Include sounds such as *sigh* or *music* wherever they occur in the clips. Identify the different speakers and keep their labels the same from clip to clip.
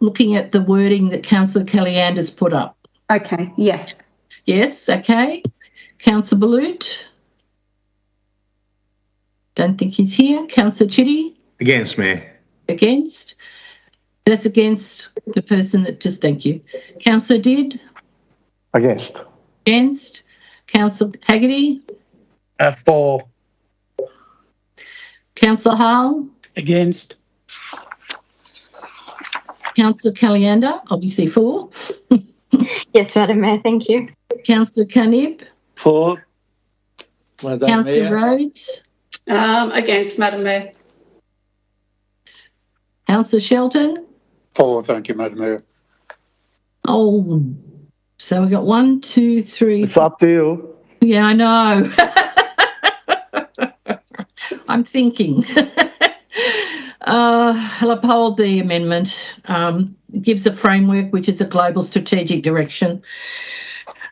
Speaker 1: looking at the wording that Councillor Kellyanne has put up.
Speaker 2: Okay, yes.
Speaker 1: Yes, okay. Councillor Balut? Don't think he's here. Councillor Chitty?
Speaker 3: Against, Mayor.
Speaker 1: Against? That's against the person that just, thank you. Councillor Did?
Speaker 3: Against.
Speaker 1: Against? Councillor Haggerty?
Speaker 4: Uh, for.
Speaker 1: Councillor Hall?
Speaker 4: Against.
Speaker 1: Councillor Caliander, obviously *laughs* for.
Speaker 5: Yes, Madam Mayor, thank you.
Speaker 1: Councillor Canib?
Speaker 6: For. Madam
Speaker 1: Councillor
Speaker 6: Mayor.
Speaker 1: Rhodes?
Speaker 7: Um, against, Madam Mayor.
Speaker 1: Councillor Shelton?
Speaker 6: For, thank you, Madam Mayor.
Speaker 1: Oh, so we got one, two, three.
Speaker 3: It's up to you.
Speaker 1: Yeah, I know. *laughs* I'm thinking. *laughs* uh, I'll uphold the amendment. Um, it gives a framework which is a global strategic direction.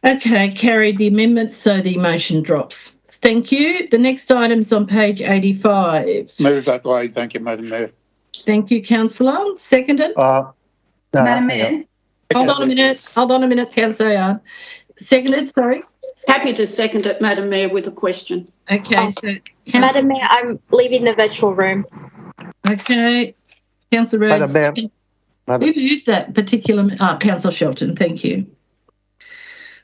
Speaker 1: Okay, carried the amendment, so the motion drops. Thank you. The next item's on page 85.
Speaker 6: Move that way, thank you, Madam Maor.
Speaker 1: Thank you, Councillor. Seconded.
Speaker 3: Uh, no,
Speaker 2: Madam
Speaker 3: hang on.
Speaker 2: Mayor,
Speaker 1: Hold on a minute. Hold on a minute, Councillor Yard. Seconded, sorry.
Speaker 7: Happy to second it, Madam Mayor, with a question.
Speaker 1: Okay,
Speaker 5: Oh.
Speaker 1: so. Councillor-
Speaker 5: Madam Mayor, I'm leaving the virtual room.
Speaker 1: Okay, councillor Rhodes.
Speaker 3: Madam Mayor.
Speaker 1: Who
Speaker 3: Madam-
Speaker 1: moved that particular, ah, councillor Shelton, thank you.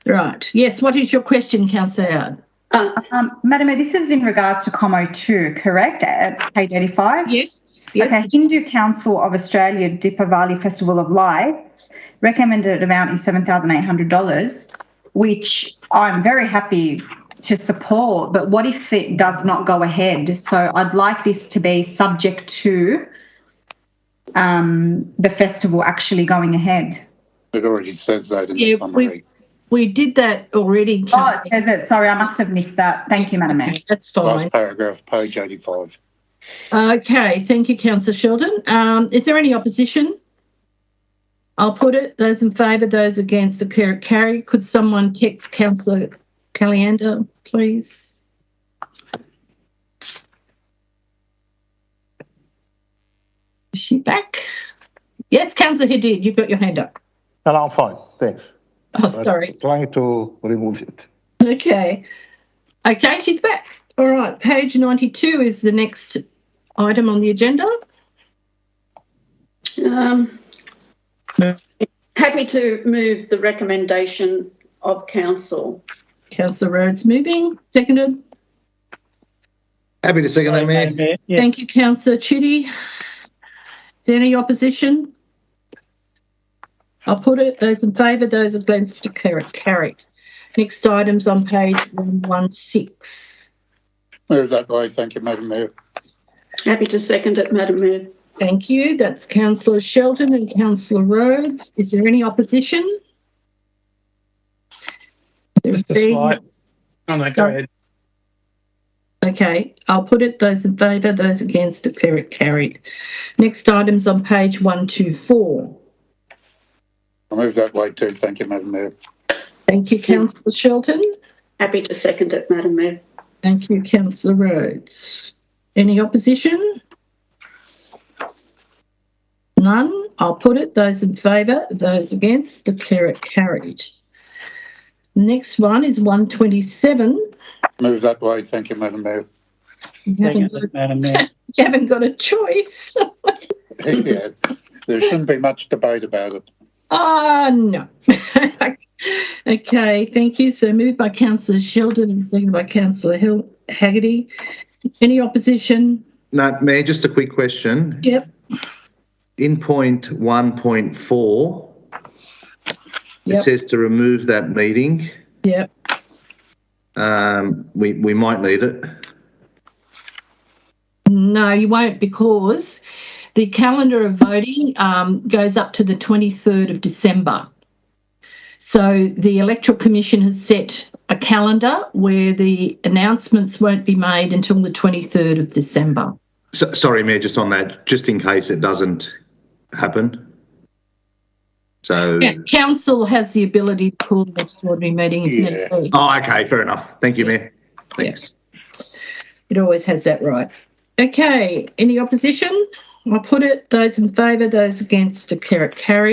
Speaker 1: Right, yes, what is your question, councillor Howard?
Speaker 7: Uh,
Speaker 2: um, Madam Mayor, this is in regards to Como 2, correct? At page 85?
Speaker 1: Yes.
Speaker 2: Okay, Hindu Council of Australia Deepavali Festival of Lights recommended amount is $7,800, which I'm very happy to support, but what if it does not go ahead? So I'd like this to be subject to um, the festival actually going ahead.
Speaker 6: It already says that in the
Speaker 1: Yeah,
Speaker 6: summary.
Speaker 1: We did that already,
Speaker 2: Oh, it
Speaker 1: councillor.
Speaker 2: says it. Sorry, I must have missed that. Thank you, Madam Mayor.
Speaker 1: That's fine.
Speaker 6: Last paragraph, page eighty-five.
Speaker 1: Okay, thank you, councillor Shelton. Um, is there any opposition? I'll put it, those in favour, those against, declare it carried. Could someone text councillor Caliander, please? Is she back? Yes, councillor Hadid, you've got your hand up.
Speaker 3: No, no, I'm fine. Thanks.
Speaker 1: Oh,
Speaker 3: But
Speaker 1: sorry.
Speaker 3: Trying to remove it.
Speaker 1: Okay. Okay, she's back. All right, page 92 is the next item on the agenda.
Speaker 7: um,
Speaker 1: No.
Speaker 7: happy to move the recommendation of council.
Speaker 1: Councillor Rhodes moving, seconded.
Speaker 8: Happy to second that, Mayor.
Speaker 1: Thank you, councillor Chitty. Is there any opposition? I'll put it, those in favour, those against, declare it carried. Next item's on page 116.
Speaker 6: Move that way, thank you, Madam Mayor.
Speaker 7: Happy to second it, Madam Mayor.
Speaker 1: Thank you, that's councillor Shelton and councillor Rhodes. Is there any opposition?
Speaker 4: Just a
Speaker 1: There being-
Speaker 4: slight. Oh, no, go
Speaker 1: Sorry.
Speaker 4: ahead.
Speaker 1: Okay, I'll put it, those in favour, those against, declare it carried. Next item's on page 124.
Speaker 6: Move that way too, thank you, Madam Mayor.
Speaker 1: Thank you, councillor Shelton.
Speaker 7: Happy to second it, Madam Mayor.
Speaker 1: Thank you, councillor Rhodes. Any opposition? None. I'll put it. Those in favour, those against, declare it carried. Next one is 127.
Speaker 6: Move that way, thank you, Madam Mayor. *laughs*
Speaker 1: You haven't,
Speaker 4: Thank
Speaker 1: got,
Speaker 4: you, Madam Mayor.
Speaker 1: you haven't got a choice. *laughs*
Speaker 6: Yeah, there shouldn't be much debate about it.
Speaker 1: Ah, no. *laughs* okay, thank you. So moved by councillor Sheldon and seconded by councillor Hill Haggerty. Any opposition?
Speaker 8: No, Mayor, just a quick question.
Speaker 1: Yep.
Speaker 8: In point one point four, it
Speaker 1: Yep.
Speaker 8: says to remove that meeting.
Speaker 1: Yep.
Speaker 8: Um, we, we might need it.
Speaker 1: No, you won't because the calendar of voting um, goes up to the 23rd of December. So the Electoral Commission has set a calendar where the announcements won't be made until the 23rd of December.
Speaker 8: So, sorry, Mayor, just on that, just in case it doesn't happen. So,
Speaker 1: Yeah, council has the ability to call an extraordinary meeting if
Speaker 6: Yeah.
Speaker 1: need be.
Speaker 8: oh, okay, fair enough. Thank you, Mayor. Thanks.
Speaker 1: It always has that right. Okay, any opposition? I'll put it, those in favour, those against, declare it carried.